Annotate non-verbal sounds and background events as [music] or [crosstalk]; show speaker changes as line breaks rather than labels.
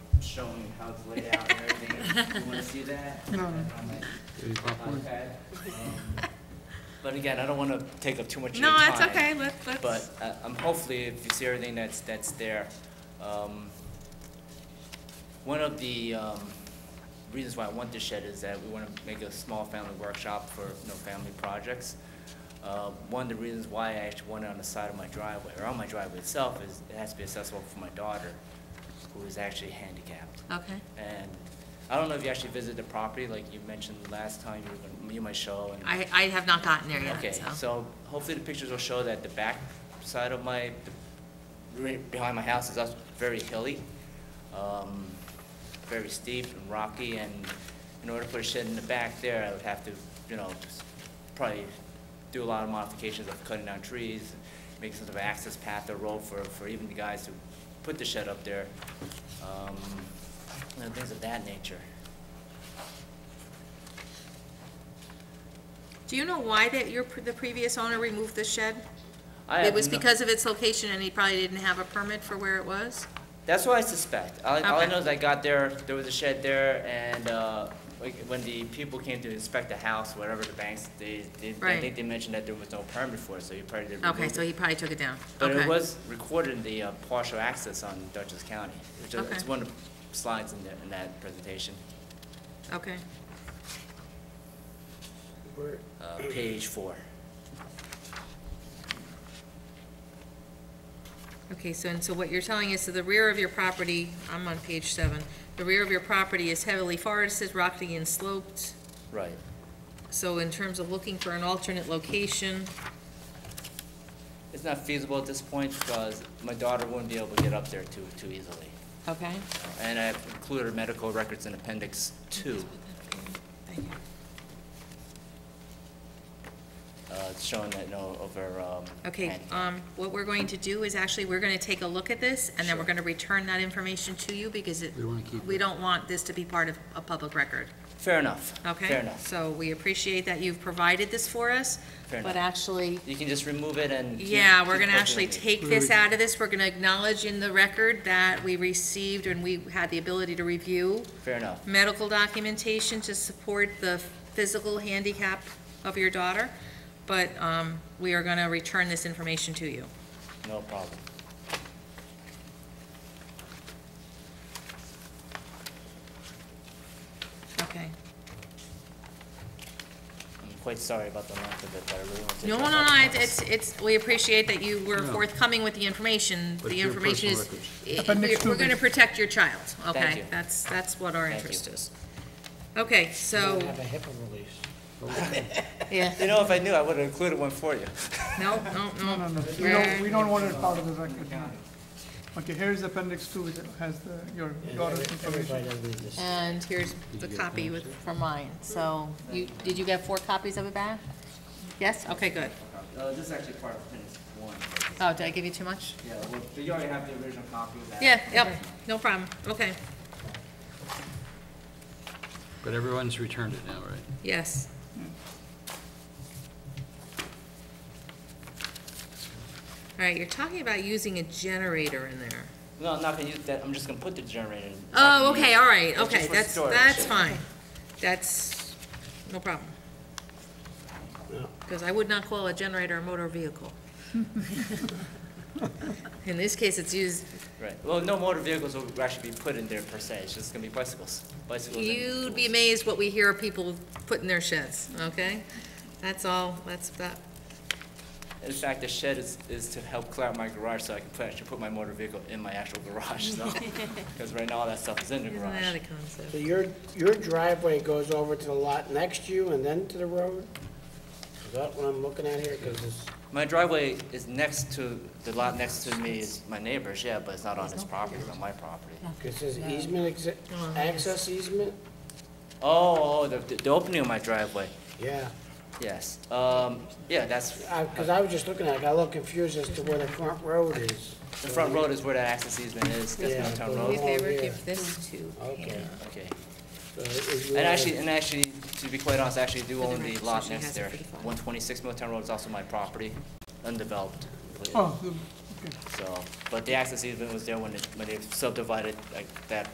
showing you how it's laid out and everything. You wanna see that?
[laughs]
Any popcorn?
Okay. Um, But again, I don't wanna take up too much of your
No,
time.
that's okay, let, let's.
But uh, um, hopefully, if you see everything that's, that's there, um, one of the um, reasons why I want this shed is that we want to make a small family workshop for, you know, family projects. Uh, One of the reasons why I actually want it on the side of my driveway, or on my driveway itself, is it has to be accessible for my daughter, who is actually handicapped.
Okay,
And I don't know if you actually visited the property, like you mentioned last time, you were, gonna- you might show and.
I, I have not gotten there
Okay,
yet, so.
so hopefully the pictures will show that the back side of my, right behind my house is also very hilly, um, very steep and rocky, and in order to put a shed in the back there, I would have to, you know, s- probably do a lot of modifications of cutting down trees, make some sort of access path or road for, for even the guys who put the shed up there, um, and things of that nature.
Do you know why that your, pre- the previous owner removed the shed?
I
It
have
was
no-
because of its location and he probably didn't have a permit for where it was?
That's what I suspect. All, all I
Okay.
know is I got there, there was a shed there, and, uh, like, when the people came to inspect the house, whatever the banks, they, they, I
Right.
think they mentioned that there was no permit for it, so you probably didn't.
Okay,
remove
so
it.
he probably took it down.
But
Okay.
it was recorded in the uh, partial access on Dutchess County, which is,
Okay.
it's one of the slides in that, in that presentation,
Okay,
uh, page four.
okay, so, and so what you're telling us, so the rear of your property, I'm on page seven, the rear of your property is heavily forested, rocky and sloped.
Right.
So in terms of looking for an alternate location,
It's not feasible at this point, because my daughter wouldn't be able to get up there too, too easily.
okay?
And I've included her medical records in appendix two.
Thank you.
uh, it's showing that no over, um.
Okay,
handicap.
um, what we're going to do is actually, we're gonna take a look at this, and then we're
Sure.
gonna return that information to you, because it,
We wanna keep
we
it.
don't want this to be part of a public record,
Fair enough.
okay?
Fair enough.
So we appreciate that you've provided this for us,
Fair
but
enough.
actually,
You can just remove it and. keep-
yeah, we're
keep
gonna
posting
actually
it.
take this out of this, we're gonna acknowledge in the record that we received and we had the ability to review
Fair enough.
medical documentation to support the physical handicap of your daughter, but, um, we are gonna return this information to you.
No problem.
Okay.
I'm quite sorry about the length of it, but I really want to.
No,
take
no,
up
no,
my
it's, it's, it's- we appreciate that you were
No.
forthcoming with the information.
But
The
your
information is,
personal
i-
But
we're
next
we're
Tuesday.
gonna protect your child,
Thank
okay?
you.
That's, that's what our
Thank
interest
you.
is. Okay, so,
Have a HIPAA release.
yeah,
[laughs] You know, if I knew, I would have included one for you.
no, no,
No,
no.
no, we don't,
We're-
we don't want it part of the record. Okay, here's appendix two, which has the, your daughter's information.
And here's the copy with, for mine, so, you, did you get four copies of it back? Yes, okay, good.
Uh, this is actually part of appendix one.
Oh, did I give you too much?
Yeah, well, you already have the original copy of that.
Yeah, yep, no problem, okay,
But everyone's returned it now, right?
yes. All right, you're talking about using a generator in there.
No, I'm not gonna use that. I'm just gonna put the generator in. It's not
Oh,
gonna
okay,
use-
all right,
It's just
okay,
for
that's,
storage.
that's fine. That's, no problem. Because I would not call a generator a motor vehicle. In this case, it's used,
Right. Well, no motor vehicles will actually be put in there per se. It's just gonna be bicycles, bicycles and
you'd be
tools.
amazed what we hear people put in their sheds, okay? That's all, that's that,
In fact, the shed is, is to help clear out my garage so I can put, actually put my motor vehicle in my actual garage, so.
[laughs]
Because right now, all that stuff is in the
isn't that
garage.
a concept?
So your, your driveway goes over to the lot next to you and then to the road? Is that what I'm looking at here? Because it's,
My driveway is next to, the lot next to me is my neighbor's, yeah, but it's not on his property, it's on my property.
because it's easement, exi- access easement?
Oh, oh, the, the opening of my driveway,
Yeah,
yes. Um, yeah, that's,
because I was just looking at it, I got a little confused as to where the front road is.
the front road is where that access easement is, that's
Yeah,
Milltown
but-
Do me a
Road,
favor,
Oh, yeah.
give this to
Okay.
okay.
So uh, is
And
your-
actually, and actually, to be quite honest, I actually do
For the
own the
record, so
lot
she
next
has it
there.
for the file.
One twenty-six Milltown Road is also my property, undeveloped.
Oh, the- okay.
So, but the access easement was there when it, when they subdivided like that